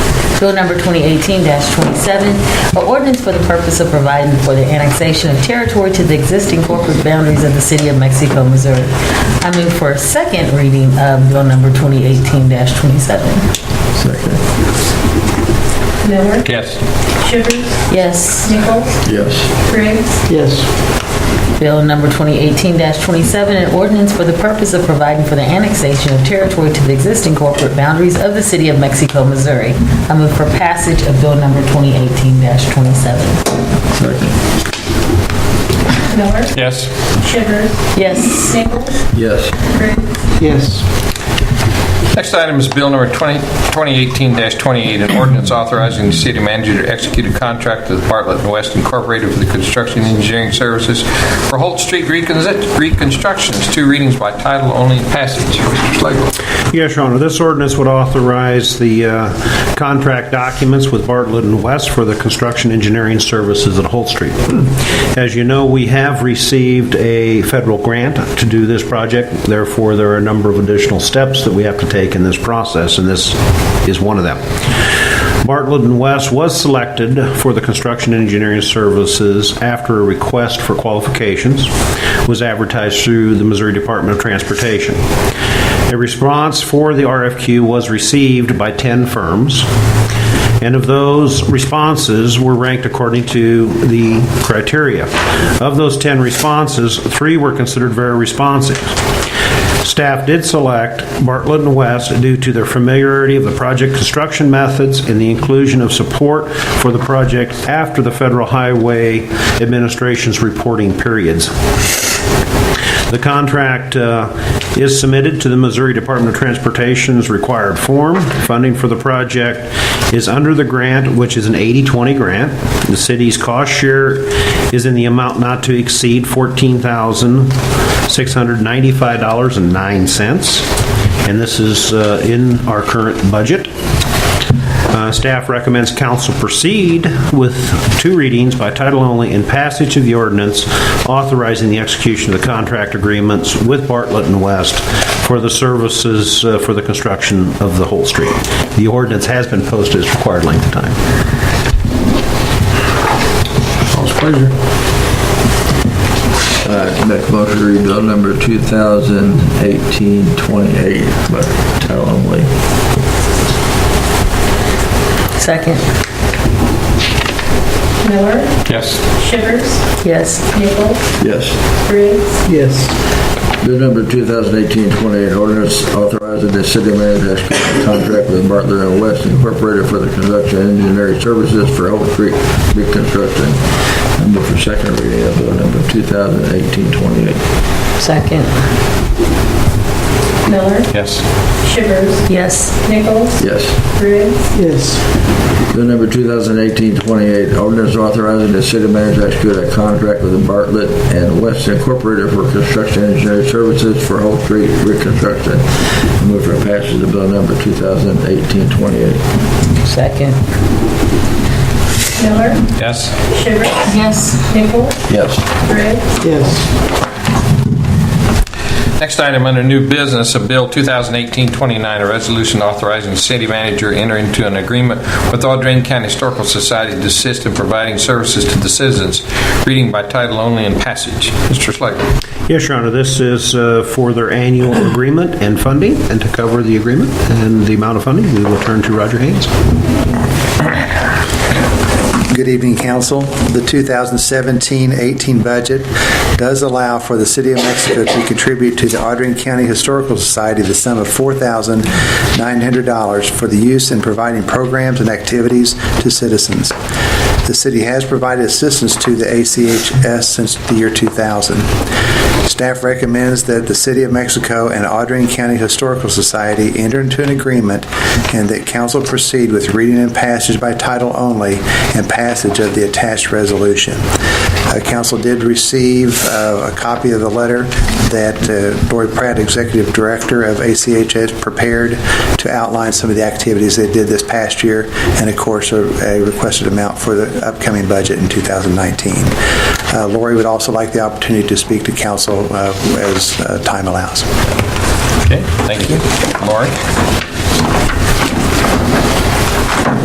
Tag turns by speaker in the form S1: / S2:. S1: Bill number 2018-27, an ordinance for the purpose of providing for the annexation of territory to the existing corporate boundaries of the city of Mexico, Missouri. I move for a second reading of bill number 2018-27.
S2: Second.
S3: Miller,
S4: Yes.
S3: Shivers,
S1: Yes.
S3: Nichols,
S2: Yes.
S3: Briggs,
S2: Yes.
S1: Bill number 2018-27, an ordinance for the purpose of providing for the annexation of territory to the existing corporate boundaries of the city of Mexico, Missouri. I move for passage of bill number 2018-27.
S2: Second.
S3: Miller,
S4: Yes.
S3: Shivers,
S1: Yes.
S3: Nichols,
S2: Yes.
S3: Briggs,
S2: Yes.
S4: Next item is Bill number 20 2018-28, an ordinance authorizing the city manager to execute a contract with Bartlett and West Incorporated for the construction engineering services for Holt Street reconsi- reconstructions, two readings by title only, passage. Mr. Slagle.
S5: Yes, Your Honor, this ordinance would authorize the uh, contract documents with Bartlett and West for the construction engineering services at Holt Street. As you know, we have received a federal grant to do this project, therefore, there are a number of additional steps that we have to take in this process, and this is one of them. Bartlett and West was selected for the construction engineering services after a request for qualifications was advertised through the Missouri Department of Transportation. A response for the RFQ was received by 10 firms, and of those responses were ranked according to the criteria. Of those 10 responses, three were considered very responsive. Staff did select Bartlett and West due to their familiarity of the project construction methods and the inclusion of support for the project after the Federal Highway Administration's reporting periods. The contract uh, is submitted to the Missouri Department of Transportation's required form. Funding for the project is under the grant, which is an 80-20 grant. The city's cost share is in the amount not to exceed $14,695.09, and this is uh, in our current budget. Uh, Staff recommends council proceed with two readings by title only and passage of the ordinance authorizing the execution of the contract agreements with Bartlett and West for the services uh, for the construction of the whole street. The ordinance has been posted as required length of time.
S2: All's pleasure. All right, Uh, make a motion to read bill number 2018-28 by title only.
S1: Second.
S3: Miller,
S4: Yes.
S3: Shivers,
S1: Yes.
S3: Nichols,
S2: Yes.
S3: Briggs,
S2: Yes. Bill number 2018-28, ordinance authorizing the city manager to execute a contract with Bartlett and West Incorporated for the construction engineering services for Oak Creek reconstruction. Number for second reading of bill number 2018-28.
S1: Second.
S3: Miller,
S4: Yes.
S3: Shivers,
S1: Yes.
S3: Nichols,
S2: Yes.
S3: Briggs,
S2: Bill number 2018-28, ordinance authorizing the city manager to execute a contract with Bartlett and West Incorporated for construction engineering services for Hope Street reconstruction. Move for passage of bill number 2018-28.
S1: Second.
S3: Miller,
S4: Yes.
S3: Shivers,
S1: Yes.
S3: Nichols,
S2: Yes.
S3: Briggs,
S4: Next item under new business, a bill 2018-29, a resolution authorizing the city manager to enter into an agreement with Audrain County Historical Society to assist in providing services to the citizens, reading by title only and passage. Mr. Slagle.
S5: Yes, Your Honor, this is uh, for their annual agreement and funding, and to cover the agreement and the amount of funding, we will turn to Roger Haynes.
S6: Good evening, council. The 2017-18 budget does allow for the City of Mexico to contribute to the Audrain County Historical Society the sum of $4,900 for the use in providing programs and activities to citizens. The city has provided assistance to the ACHS since the year 2000. Staff recommends that the City of Mexico and Audrain County Historical Society enter into an agreement and that council proceed with reading and passage by title only and passage of the attached resolution. Uh, Council did receive uh, a copy of the letter that uh, Lori Pratt, Executive Director of ACHS, prepared to outline some of the activities they did this past year and, of course, a a requested amount for the upcoming budget in 2019. Uh, Lori would also like the opportunity to speak to council uh, as uh, time allows.
S4: Okay, thank you. Lori.